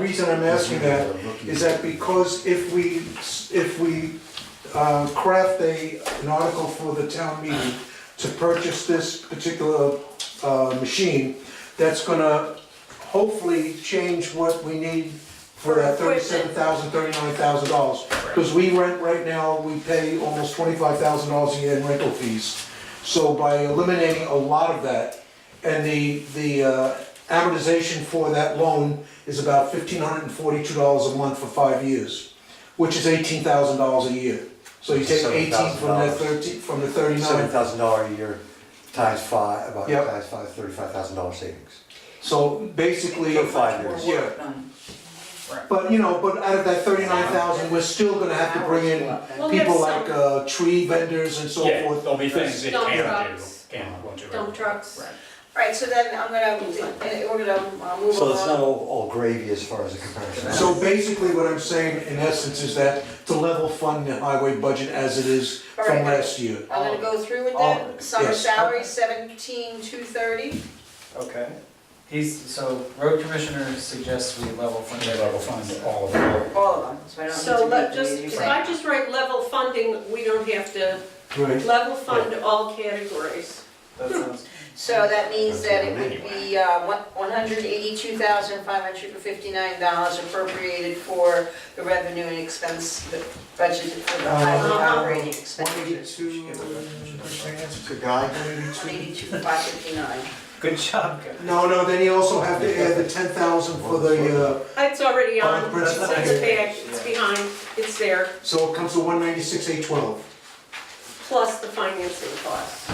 The Reason I'm asking that is that because if we, if we uh, craft a, an article for the town meeting to purchase this particular uh, machine, that's gonna hopefully change what we need for that For equipment. thirty-seven thousand, thirty-nine thousand dollars. Because we rent right now, we pay almost twenty-five thousand dollars a year in rental fees. So by eliminating a lot of that, and the, the uh, amortization for that loan is about fifteen hundred and forty-two dollars a month for five years, which is eighteen thousand dollars a year. So you take eighteen from that $7,000. thirteen, from the Seven thirty-nine, thousand dollar a year times five, about Yep. times five, thirty-five thousand dollar savings. so basically. For five We're years. working on it. Right. But, you know, but out of that thirty-nine thousand, we're still gonna have to bring in Well, people there's like some- uh, tree vendors and so Yeah, forth. there'll be things that Dump can do, trucks. can, won't do. it. dump trucks. Right. Right, so then I'm gonna, eh, we're gonna uh, move So it's not along. all, all gravy as far as the comparison. So basically, what I'm saying in essence is that to level fund the highway budget as it is from Alright. last year. I'm gonna go through with All of that, summer yes. salary seventeen two thirty, Okay. He's, so road commissioner suggests we level fund Yeah, it. level fund all of it. all of them, so I don't need to So read let, the just, meeting. if I just write level funding, we don't have to, Right. level fund all categories. That sounds, So that means that it would be uh, one hundred eighty-two thousand five hundred and fifty-nine dollars appropriated for the revenue and expense, the budget for the highway Uh, operating One expenditures. eighty-two, Good guy. One eighty-two five fifty-nine. good job, guys. No, no, then you also have to add the ten thousand for the, uh, It's already Oh, on, it's that's in the okay. back, it's behind, it's there, so it comes to one ninety-six, eight twelve. plus the financing costs.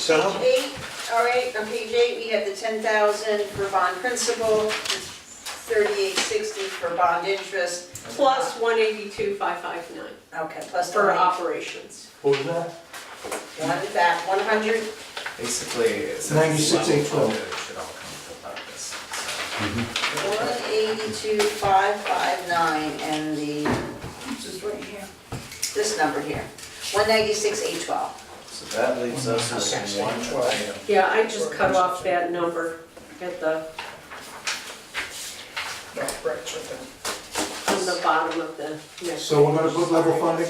So how- Eight, all right, on page eight, we have the ten thousand for bond principal, thirty-eight sixty for bond interest, Plus one eighty-two, five five nine okay, plus the for one, operations. what was that? one, that, one hundred, Basically, since it's 96, level 812. funded, it should all come about this. one eighty-two, five five nine, and the, this is right here, this number here, one ninety-six, eight twelve. So that leaves us with Okay. one twelve. Yeah, I just cut off that number at the, on the bottom of the next. So we're gonna put level funding?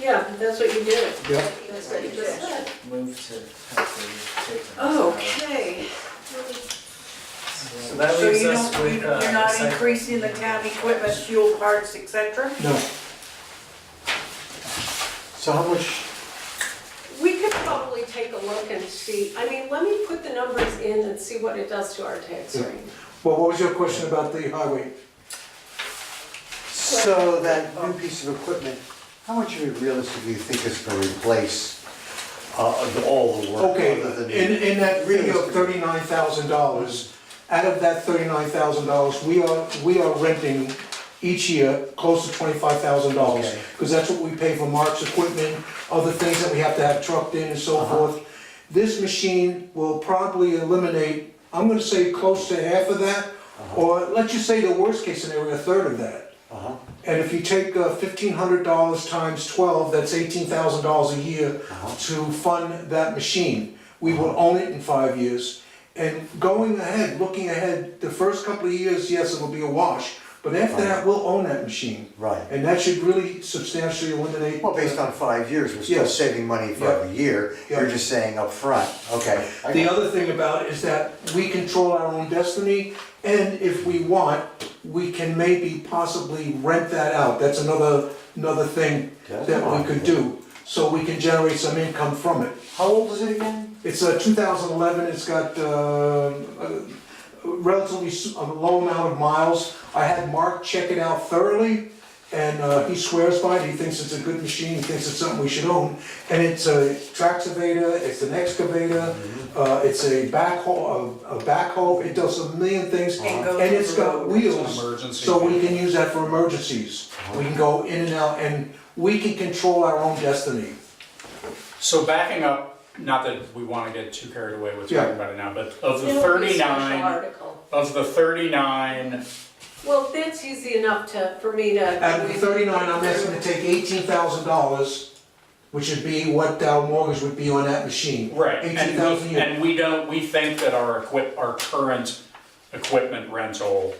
Yeah, that's what you did. Yep. That's what You it just is. said. Move to have to take. the- Oh, Okay. So that So leaves you us don't, you- with. uh, you're not recycling. increasing the town equipment, fuel parts, et cetera? No, So how much, We could probably take a look and see, I mean, let me put the numbers in and see what it does to our tax Yeah. rate. well, what was your question about the highway? so that new piece of equipment, how much do you realistically think is gonna replace, uh, of all the work Okay, other than? in, in that reading of thirty-nine thousand dollars, out of that thirty-nine thousand dollars, we are, we are renting each year close to twenty-five thousand dollars. Okay. Because that's what we pay for Mark's equipment, other things that we have to have trucked in and so Uh-huh. forth. This machine will probably eliminate, I'm gonna say close to half of that, or let's just say the worst case scenario, a third of that. Uh-huh. And if you take uh, fifteen hundred dollars times twelve, that's eighteen thousand dollars a year Uh-huh. to fund that machine. We will own it in five years. And going ahead, looking ahead, the first couple of years, yes, it'll be a wash, but after that, we'll own that machine. Right. And that should really substantially eliminate. Well, based on five years, we're still Yes. saving money for Yeah. every year. You're Yeah. just saying upfront, okay. I The got- other thing about it is that we control our own destiny, and if we want, we can maybe possibly rent that out. That's another, another thing Yeah. that we could do. So we can generate some income from it. How old is it again? It's uh, 2011, it's got uh, a relatively s- a low amount of miles. I had Mark check it out thoroughly, and uh, he swears by it, he thinks it's a good machine, he thinks it's something we should own. And it's a traxivator, it's an excavator, Mm-hmm. uh, it's a backhoe, a a backhoe, it does a million things. And goes And it's over got roads. wheels, Emergency. so we can use that for emergencies. We can go in and out, and we can control our own destiny. So backing up, not that we wanna get too carried away with Yeah. talking about it now, but of It'll be the a special thirty-nine, article. of the thirty-nine, Well, that's easy enough to, for me to. Out of the thirty-nine, I'm asking to take eighteen thousand dollars, which would be what Dow mortgage would be on that machine. right, Eighteen and thousand a we, year. and we don't, we think that our equip, our current equipment rental